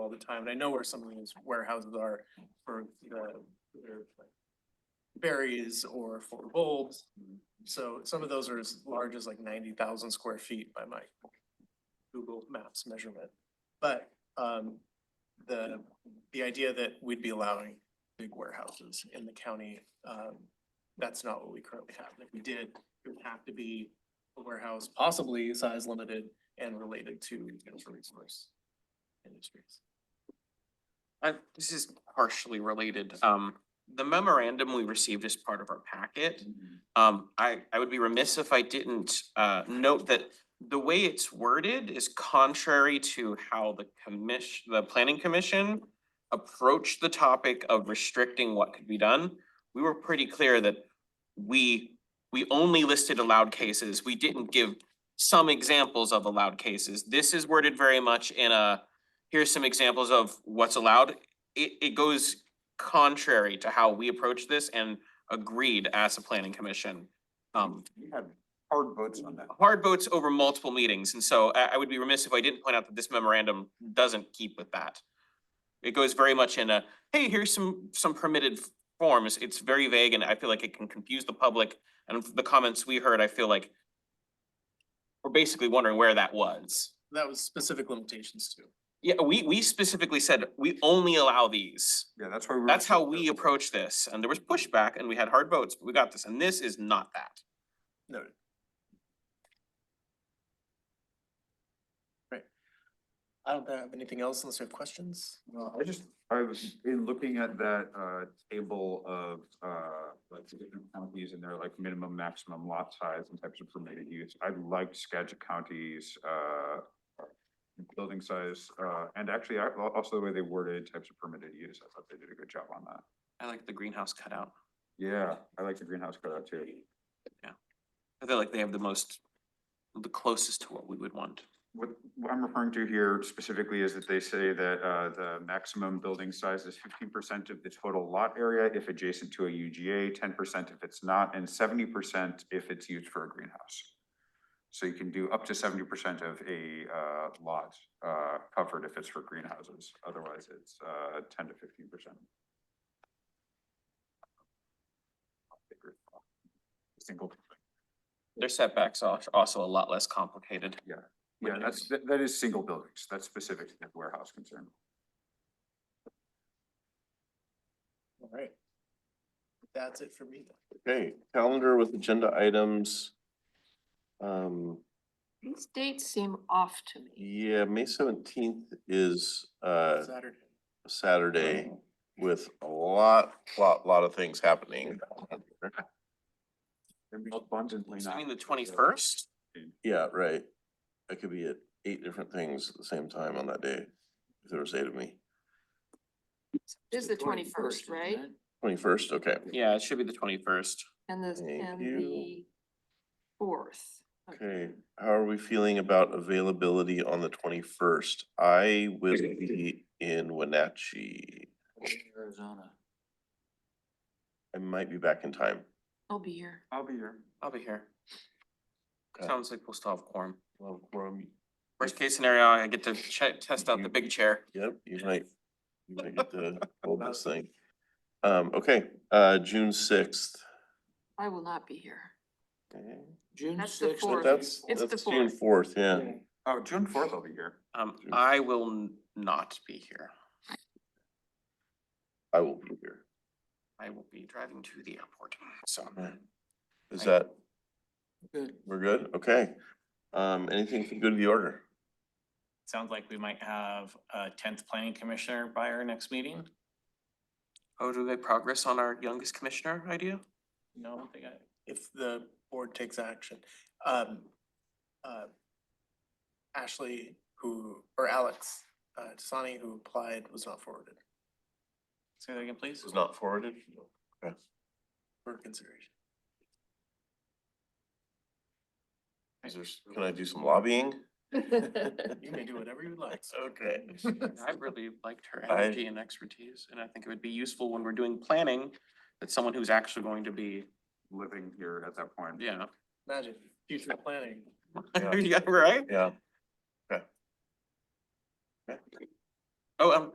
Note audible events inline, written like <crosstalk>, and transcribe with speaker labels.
Speaker 1: the time, and I know where some of these warehouses are for the their berries or for bulbs. So some of those are as large as like ninety thousand square feet by my Google Maps measurement. But um, the, the idea that we'd be allowing big warehouses in the county, um, that's not what we currently have. If we did, it would have to be a warehouse, possibly size limited and related to natural resource industries.
Speaker 2: Uh, this is partially related. Um, the memorandum we received as part of our packet. Um, I, I would be remiss if I didn't, uh, note that the way it's worded is contrary to how the commission, the planning commission approached the topic of restricting what could be done. We were pretty clear that we, we only listed allowed cases. We didn't give some examples of allowed cases. This is worded very much in a, here's some examples of what's allowed. It, it goes contrary to how we approached this and agreed as a planning commission. Um,
Speaker 3: You had hard votes on that.
Speaker 2: hard votes over multiple meetings, and so I, I would be remiss if I didn't point out that this memorandum doesn't keep with that. It goes very much in a, hey, here's some, some permitted f- forms. It's very vague, and I feel like it can confuse the public. And the comments we heard, I feel like we're basically wondering where that was.
Speaker 1: That was specific limitations too.
Speaker 2: Yeah, we, we specifically said, we only allow these.
Speaker 3: Yeah, that's why. we were
Speaker 2: That's
Speaker 3: so
Speaker 2: how we
Speaker 3: careful.
Speaker 2: approach this. And there was pushback and we had hard votes, but we got this. And this is not that.
Speaker 1: Noted. Right. I don't have anything else unless you have questions.
Speaker 3: No, I just, I was, in looking at that, uh, table of, uh, like the different counties and their like minimum, maximum lot size and types of permitted use, I liked Skagit County's, uh, building size, uh, and actually, I, al- also the way they worded types of permitted use, I thought they did a good job on that.
Speaker 2: I like the greenhouse cutout.
Speaker 3: Yeah, I like the greenhouse cutout too.
Speaker 2: I feel like they have the most, the closest to what we would want.
Speaker 3: What, what I'm referring to here specifically is that they say that, uh, the maximum building size is fifteen percent of the total lot area if adjacent to a UGA, ten percent if it's not, and seventy percent if it's used for a greenhouse. So you can do up to seventy percent of a, uh, lot, uh, covered if it's for greenhouses, otherwise it's, uh, ten to fifteen percent. Single.
Speaker 2: Their setbacks are also a lot less complicated.
Speaker 3: Yeah, that's, that, that is single buildings. That's specific to the warehouse concern.
Speaker 1: All right. That's it for me.
Speaker 4: Okay, calendar with agenda items. Um,
Speaker 5: These dates seem off to me.
Speaker 4: yeah, May seventeenth is uh
Speaker 1: Saturday.
Speaker 4: Saturday with a lot, lot, lot of things happening.
Speaker 3: Abundantly
Speaker 2: So I mean, the twenty-first?
Speaker 4: Yeah, right. I could be at eight different things at the same time on that day. If there was eight of me.
Speaker 5: This is the twenty-first, right?
Speaker 4: Twenty-first, okay.
Speaker 2: Yeah, it should be the twenty-first.
Speaker 5: And the,
Speaker 4: Thank
Speaker 5: and
Speaker 4: you.
Speaker 5: the fourth.
Speaker 4: Okay, how are we feeling about availability on the twenty-first? I will be in Wenatchee.
Speaker 6: Arizona.
Speaker 4: I might be back in time.
Speaker 5: I'll be here.
Speaker 3: I'll be here.
Speaker 2: I'll be here.
Speaker 4: Okay.
Speaker 2: Sounds like we'll still have quorum.
Speaker 4: Well, quorum,
Speaker 2: Worst case scenario, I get to check, test out the big chair.
Speaker 4: Yep, you might, you might get to hold this thing. Um, okay, uh, June sixth.
Speaker 5: I will not
Speaker 4: <laughs>
Speaker 5: be here.
Speaker 6: June
Speaker 5: That's the
Speaker 6: sixth.
Speaker 5: fourth.
Speaker 4: That's,
Speaker 5: It's the
Speaker 4: that's June fourth,
Speaker 5: fourth.
Speaker 4: yeah.
Speaker 3: Oh, June fourth I'll be here.
Speaker 2: Um,
Speaker 4: Sure.
Speaker 2: I will n- not be here.
Speaker 4: I will be here.
Speaker 2: I will be driving to the airport, so.
Speaker 4: Right. Is
Speaker 2: Right.
Speaker 4: that,
Speaker 6: Good.
Speaker 4: we're good? Okay. Um, anything for good of the order?
Speaker 7: Sounds like we might have a tenth planning commissioner by our next meeting.
Speaker 2: Oh, do they progress on our youngest commissioner idea?
Speaker 7: No, they got,
Speaker 1: if the board takes action. Um, uh, Ashley, who, or Alex, uh, Tasani, who applied, was not forwarded
Speaker 7: say that again, please.
Speaker 4: not forwarded.
Speaker 1: for consideration.
Speaker 4: Is there, s- can I do some <laughs> lobbying?
Speaker 1: You may do whatever you like.
Speaker 4: <laughs> Okay.
Speaker 2: I really liked her
Speaker 4: I-
Speaker 2: energy and expertise, and I think it would be useful when we're doing planning, that someone who's actually going to be,
Speaker 3: Living here at that point.
Speaker 2: yeah.
Speaker 1: Imagine future planning.
Speaker 2: <laughs>
Speaker 4: Yeah.
Speaker 2: Yeah, right?
Speaker 4: Yeah. Oh, um,